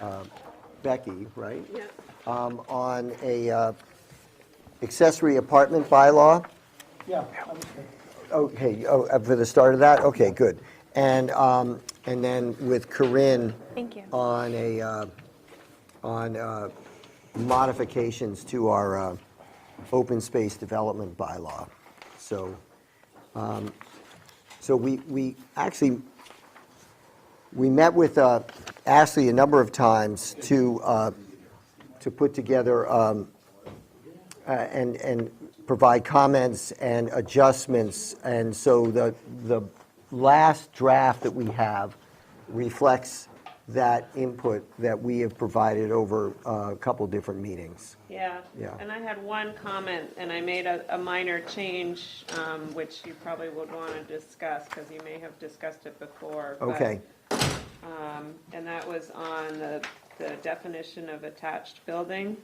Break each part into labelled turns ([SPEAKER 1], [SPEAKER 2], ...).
[SPEAKER 1] uh, Becky, right?
[SPEAKER 2] Yeah.
[SPEAKER 1] Um, On a uh, accessory apartment bylaw?
[SPEAKER 3] Yeah, that was good.
[SPEAKER 1] Okay, oh, uh, for the start of that? Okay, good. And, um, and then with Corinne.
[SPEAKER 4] Thank you.
[SPEAKER 1] On a, uh, on uh, modifications to our uh, open space development bylaw. So, um, so we, we actually, we met with uh, Ashley a number of times to, uh, to put together um, uh, and, and provide comments and adjustments. And so the, the last draft that we have reflects that input that we have provided over uh, a couple different meetings.
[SPEAKER 2] Yeah.
[SPEAKER 1] Yeah.
[SPEAKER 2] And I had one comment, and I made a, a minor change, um, which you probably would want to discuss, because you may have discussed it before. but,
[SPEAKER 1] Okay,
[SPEAKER 2] um, And that was on the, the definition of attached building.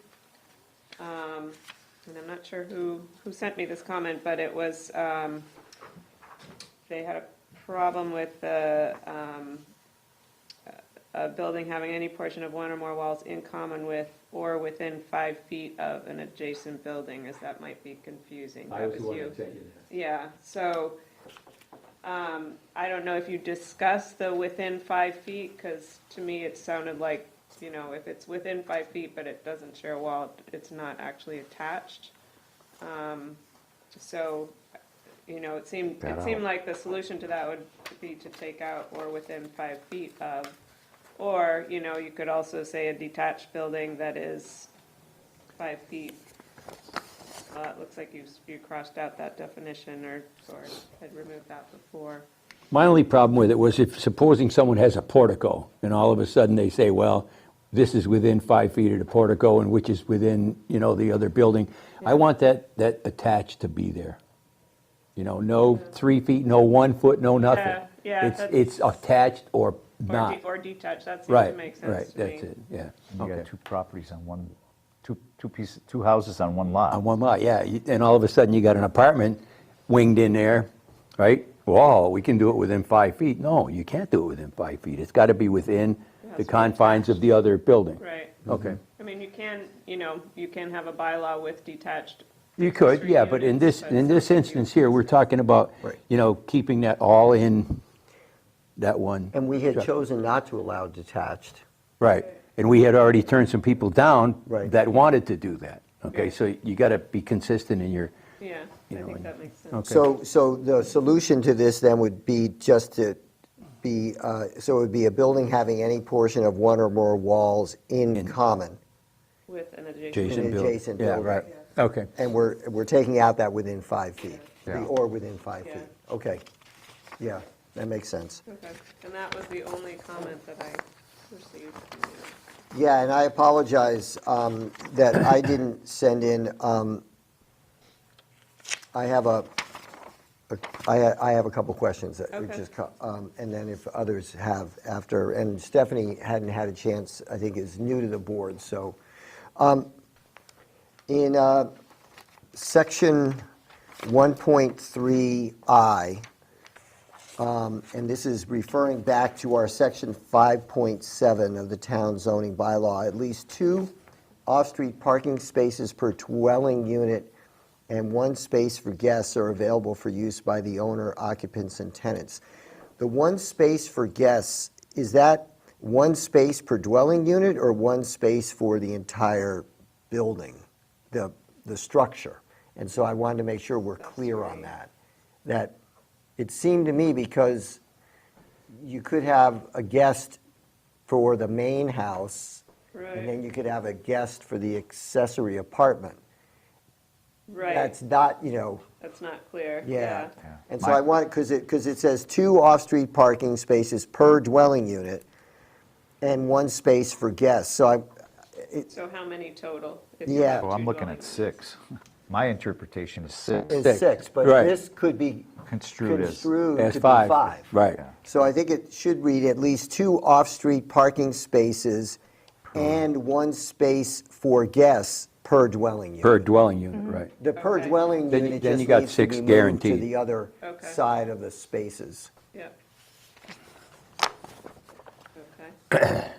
[SPEAKER 2] Um, And I'm not sure who, who sent me this comment, but it was, um, they had a problem with the, um, a building having any portion of one or more walls in common with or within five feet of an adjacent building, as that might be confusing.
[SPEAKER 5] I
[SPEAKER 2] That
[SPEAKER 5] was the
[SPEAKER 2] was
[SPEAKER 5] one
[SPEAKER 2] you.
[SPEAKER 5] that taken
[SPEAKER 2] Yeah, so, um, I don't know if you discussed the within five feet, because to me, it sounded like, you know, if it's within five feet, but it doesn't share a wall, it's not actually attached. Um, so, you know, it seemed, it seemed like the solution to that would be to take out or within five feet of. Or, you know, you could also say a detached building that is five feet well, Uh, it looks like you, you crossed out that definition or, or had removed that before.
[SPEAKER 5] My only problem with it was if, supposing someone has a portico, and all of a sudden they say, well, this is within five feet of the portico, and which is within, you know, the other building. I want that, that attached to be there. You know, no three feet, no one foot, no nothing.
[SPEAKER 2] Yeah, yeah,
[SPEAKER 5] It's,
[SPEAKER 2] that's-
[SPEAKER 5] it's attached or
[SPEAKER 2] Or, de-
[SPEAKER 5] not.
[SPEAKER 2] or detached, that seems to
[SPEAKER 5] Right,
[SPEAKER 2] make
[SPEAKER 5] right,
[SPEAKER 2] sense to me.
[SPEAKER 5] that's it, yeah.
[SPEAKER 6] You
[SPEAKER 5] Okay.
[SPEAKER 6] got two properties on one, two, two pieces, two houses on one lot.
[SPEAKER 5] On one lot, yeah. You- And all of a sudden, you got an apartment winged in there, right? Whoa, we can do it within five feet. No, you can't do it within five feet. It's got to be within the confines of the other building.
[SPEAKER 2] Right,
[SPEAKER 5] Okay.
[SPEAKER 1] Mm-hmm.
[SPEAKER 2] I mean, you can, you know, you can have a bylaw with detached.
[SPEAKER 5] You could,
[SPEAKER 2] accessory
[SPEAKER 5] yeah, but in
[SPEAKER 2] units,
[SPEAKER 5] this,
[SPEAKER 2] but-
[SPEAKER 5] in this instance here, we're talking about,
[SPEAKER 1] Right.
[SPEAKER 5] you know, keeping that all in that one.
[SPEAKER 1] and we had chosen not to allow detached.
[SPEAKER 5] Right. And we had already turned some people down
[SPEAKER 1] Right.
[SPEAKER 5] that wanted to do that. Okay,
[SPEAKER 2] Right.
[SPEAKER 5] so you got to be consistent in your,
[SPEAKER 2] Yeah, I
[SPEAKER 5] You know,
[SPEAKER 2] think
[SPEAKER 5] and-
[SPEAKER 2] that makes sense.
[SPEAKER 5] okay.
[SPEAKER 1] So, so the solution to this then would be just to be, uh, so it would be a building having any portion of one or more walls in common.
[SPEAKER 2] With an adjacent.
[SPEAKER 5] Jason build.
[SPEAKER 1] adjacent building.
[SPEAKER 5] Yeah, right, okay.
[SPEAKER 1] And we're, we're taking out that within five feet,
[SPEAKER 6] Yeah.
[SPEAKER 1] or within five
[SPEAKER 2] Yeah.
[SPEAKER 1] feet. Okay, yeah, that makes sense.
[SPEAKER 2] Okay, and that was the only comment that I received. from you.
[SPEAKER 1] Yeah, and I apologize um, that I didn't send in, um, I have a, a- I ha- I have a couple questions. that
[SPEAKER 2] Okay.
[SPEAKER 1] just co- um, And then if others have after, and Stephanie hadn't had a chance, I think is new to the board, so. um, In uh, section 1.3I, and this is referring back to our section 5.7 of the town zoning bylaw, at least two off-street parking spaces per dwelling unit and one space for guests are available for use by the owner, occupants, and tenants. The one space for guests, is that one space per dwelling unit or one space for the entire building, the, the structure? And so I wanted to make sure we're clear on that, that it seemed to me because you could have a guest for the main house, and then
[SPEAKER 2] Right.
[SPEAKER 1] you could have a guest for the accessory apartment.
[SPEAKER 2] Right,
[SPEAKER 1] That's not, you know,
[SPEAKER 2] that's not clear,
[SPEAKER 1] yeah.
[SPEAKER 2] yeah.
[SPEAKER 1] And so I want, because it, because it says two off-street parking spaces per dwelling unit and one space for guests. So I,
[SPEAKER 2] So how many total? if you
[SPEAKER 1] Yeah.
[SPEAKER 2] have
[SPEAKER 1] Oh,
[SPEAKER 6] Well,
[SPEAKER 2] two
[SPEAKER 6] I'm looking at
[SPEAKER 2] dwellings?
[SPEAKER 6] six. My interpretation is six.
[SPEAKER 1] it's six, but
[SPEAKER 5] right.
[SPEAKER 1] this could be
[SPEAKER 6] Construed as-
[SPEAKER 1] construed to
[SPEAKER 5] That's
[SPEAKER 1] be
[SPEAKER 5] five.
[SPEAKER 1] five.
[SPEAKER 5] Right.
[SPEAKER 6] Yeah.
[SPEAKER 1] So I think it should read at least two off-street parking spaces and one space for guests per dwelling unit.
[SPEAKER 5] Per dwelling unit, right.
[SPEAKER 1] The per
[SPEAKER 2] Okay.
[SPEAKER 1] dwelling
[SPEAKER 5] Then you-
[SPEAKER 1] unit
[SPEAKER 5] then
[SPEAKER 1] just
[SPEAKER 5] you got
[SPEAKER 1] needs to
[SPEAKER 5] six
[SPEAKER 1] be moved to
[SPEAKER 5] guaranteed.
[SPEAKER 1] the other
[SPEAKER 2] Okay.
[SPEAKER 1] side of the spaces.
[SPEAKER 2] Yeah. Okay.